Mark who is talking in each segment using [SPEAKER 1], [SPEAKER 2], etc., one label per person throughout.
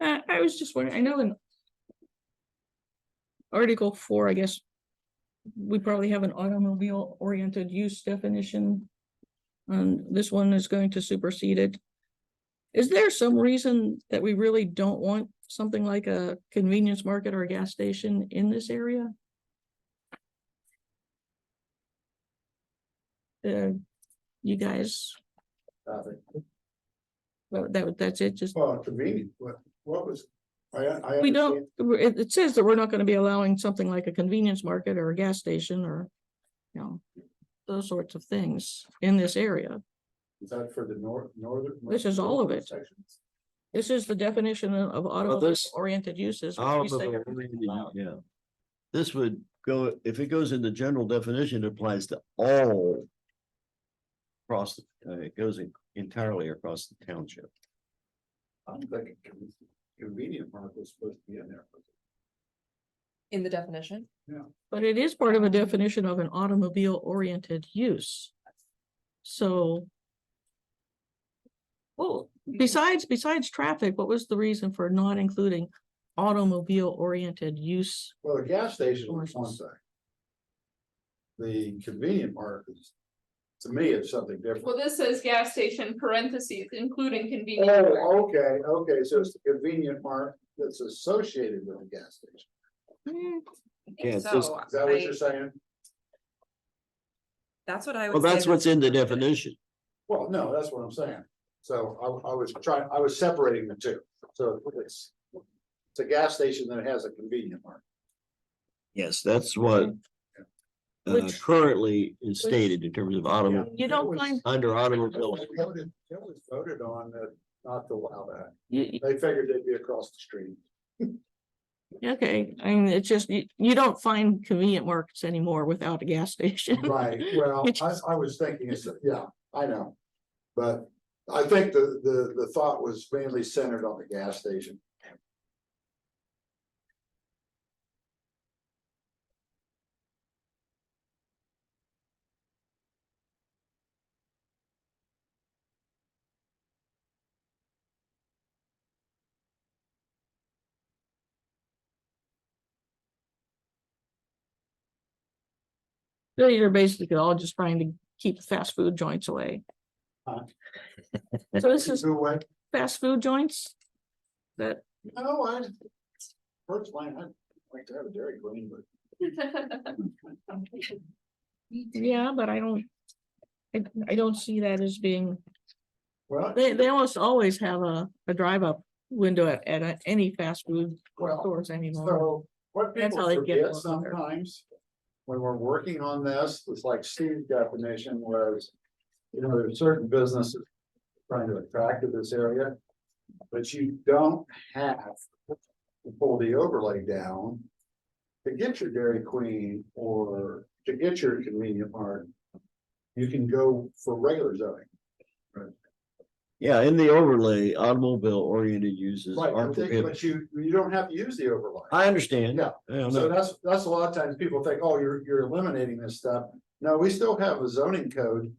[SPEAKER 1] Uh, I was just wondering, I know in Article four, I guess, we probably have an automobile oriented use definition. Um, this one is going to supersede it. Is there some reason that we really don't want something like a convenience market or a gas station in this area? Uh, you guys, well, that, that's it, just
[SPEAKER 2] Well, convenient, what, what was, I, I.
[SPEAKER 1] We
[SPEAKER 2] understand.
[SPEAKER 1] don't, it, it says that we're not gonna be allowing something like a convenience market or a gas station or, you know, those sorts of things in this area.
[SPEAKER 2] Is that for the north, northern?
[SPEAKER 1] This is all of it.
[SPEAKER 2] sections?
[SPEAKER 1] This is the definition of
[SPEAKER 3] this-
[SPEAKER 1] automobile-oriented uses. which we say
[SPEAKER 3] Automobile,
[SPEAKER 1] everything's
[SPEAKER 3] yeah,
[SPEAKER 1] allowed.
[SPEAKER 3] yeah. This would go, if it goes in the general definition, it applies to all. Across, the- uh, it goes en- entirely across the township.
[SPEAKER 2] I'm thinking con- convenient market was supposed to be in there.
[SPEAKER 4] In the definition?
[SPEAKER 1] But it is part of a definition of an automobile-oriented use. So. Well, besides, besides traffic, what was the reason for not including automobile-oriented use?
[SPEAKER 2] Well, the gas station was one
[SPEAKER 1] Commercials.
[SPEAKER 2] thing. The convenient market is, to me, it's something
[SPEAKER 5] Well,
[SPEAKER 2] different.
[SPEAKER 5] this says gas station parentheses, including convenience. store.
[SPEAKER 2] Oh, okay, okay, so it's the convenient market that's associated with the gas station.
[SPEAKER 1] Hmm,
[SPEAKER 3] Yeah, it's just-
[SPEAKER 4] So
[SPEAKER 2] Is that what
[SPEAKER 4] I-
[SPEAKER 2] you're saying?
[SPEAKER 4] that's what I
[SPEAKER 3] Well,
[SPEAKER 4] would.
[SPEAKER 3] that's what's in the definition.
[SPEAKER 2] Well, no, that's what I'm saying. So I, I was trying, I was separating the two. So it's, it's a gas station that has a convenient market.
[SPEAKER 3] Yes, that's what. Uh,
[SPEAKER 1] Which-
[SPEAKER 3] currently is stated in terms of automobile,
[SPEAKER 1] You
[SPEAKER 2] That
[SPEAKER 1] don't
[SPEAKER 2] was-
[SPEAKER 1] find,
[SPEAKER 3] under
[SPEAKER 2] That
[SPEAKER 3] automobile.
[SPEAKER 2] was voted- that was voted on that not to allow that.
[SPEAKER 1] you,
[SPEAKER 2] They figured they'd be across the street.
[SPEAKER 1] Okay, I mean, it's just, you, you don't find convenient markets anymore without a gas station.
[SPEAKER 2] Right, well,
[SPEAKER 1] Which
[SPEAKER 2] I, I was thinking, it's- yeah, I know. But I think the, the, the thought was mainly centered on the gas station.
[SPEAKER 1] They are basically all just trying to keep fast food joints away.
[SPEAKER 2] Huh.
[SPEAKER 1] So this is
[SPEAKER 2] Who went,
[SPEAKER 1] fast food joints? That,
[SPEAKER 2] no, I, first line, I'd like to have a Dairy Queen, but
[SPEAKER 1] yeah, but I don't. I, I don't see that as being,
[SPEAKER 2] well,
[SPEAKER 1] they, they almost always have a, a drive up window at, at a- any fast food
[SPEAKER 2] well,
[SPEAKER 1] stores anymore.
[SPEAKER 2] so what
[SPEAKER 1] That's how
[SPEAKER 2] people
[SPEAKER 1] they get
[SPEAKER 2] forget
[SPEAKER 1] along there.
[SPEAKER 2] sometimes. When we're working on this, it's like Steve's definition was, you know, there's certain businesses trying to attract to this area. But you don't have to pull the overlay down to get your Dairy Queen or to get your convenient mart. You can go for regular zoning.
[SPEAKER 3] Yeah, in the overlay, automobile oriented uses
[SPEAKER 2] Right,
[SPEAKER 3] are
[SPEAKER 2] but they-
[SPEAKER 3] prohibited.
[SPEAKER 2] but you, you don't have to use the overlay.
[SPEAKER 3] I understand.
[SPEAKER 2] Yeah.
[SPEAKER 3] I don't
[SPEAKER 2] So
[SPEAKER 3] know.
[SPEAKER 2] that's, that's a lot of times people think, oh, you're, you're eliminating this stuff. No, we still have a zoning code.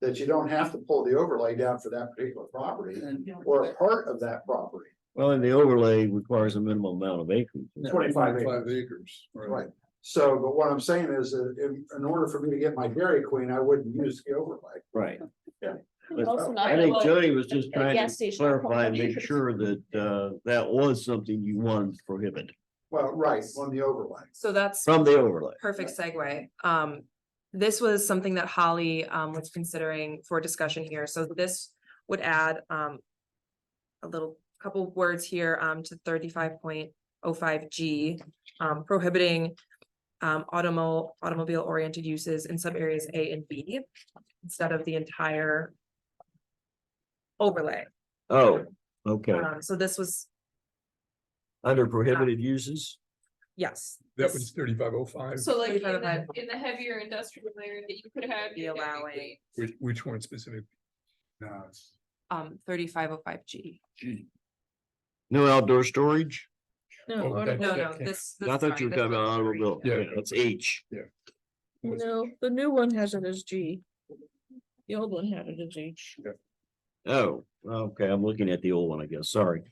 [SPEAKER 2] That you don't have to pull the overlay down for that particular property or a part of that property.
[SPEAKER 3] Well, and the overlay requires a minimum amount of acreage.
[SPEAKER 2] 25
[SPEAKER 6] Five acres.
[SPEAKER 2] Right. So, but what I'm saying is, uh, in, in order for me to get my Dairy Queen, I wouldn't use the overlay.
[SPEAKER 3] Right.
[SPEAKER 2] Yeah.
[SPEAKER 3] But
[SPEAKER 2] Also
[SPEAKER 3] I think Jody was just
[SPEAKER 5] a
[SPEAKER 3] trying
[SPEAKER 5] gas
[SPEAKER 3] to
[SPEAKER 5] station
[SPEAKER 3] clarify and
[SPEAKER 5] probably.
[SPEAKER 3] make sure that, uh, that was something you wanted to prohibit
[SPEAKER 2] Well, right, on the overlay.
[SPEAKER 4] So that's
[SPEAKER 3] from the overlay.
[SPEAKER 4] perfect segue. Um, this was something that Holly um was considering for discussion here. So this would add um. A little couple words here um to thirty-five point oh five G um prohibiting. Um, automo- automobile oriented uses in sub areas A and B instead of the entire. Overlay.
[SPEAKER 3] Oh, okay.
[SPEAKER 5] Uh,
[SPEAKER 4] Um, so this was,
[SPEAKER 3] Under prohibited uses?
[SPEAKER 4] yes.
[SPEAKER 6] That
[SPEAKER 4] this-
[SPEAKER 6] was thirty-five oh five,
[SPEAKER 5] So like in
[SPEAKER 4] Thirty-five
[SPEAKER 5] the,
[SPEAKER 4] by-
[SPEAKER 5] in the heavier industrial area, you could have.
[SPEAKER 4] Be
[SPEAKER 5] your Dairy
[SPEAKER 4] allowing-
[SPEAKER 5] Queen.
[SPEAKER 6] which, which one specific?
[SPEAKER 2] No, it's-
[SPEAKER 4] um thirty-five oh five G.
[SPEAKER 3] No outdoor storage?
[SPEAKER 1] No,
[SPEAKER 6] Oh, that-
[SPEAKER 1] automobile-
[SPEAKER 4] No,
[SPEAKER 6] Yeah,
[SPEAKER 4] no,
[SPEAKER 6] okay.
[SPEAKER 4] this. this
[SPEAKER 3] I
[SPEAKER 4] is
[SPEAKER 3] thought
[SPEAKER 4] fine.
[SPEAKER 3] you were
[SPEAKER 4] This
[SPEAKER 3] talking about
[SPEAKER 4] one's free.
[SPEAKER 3] automobile.
[SPEAKER 6] Yeah.
[SPEAKER 3] Yeah, that's H.
[SPEAKER 1] no, the new one has it as G. The old one had it as H.
[SPEAKER 3] Oh, okay. I'm looking at the old one, I guess. Sorry.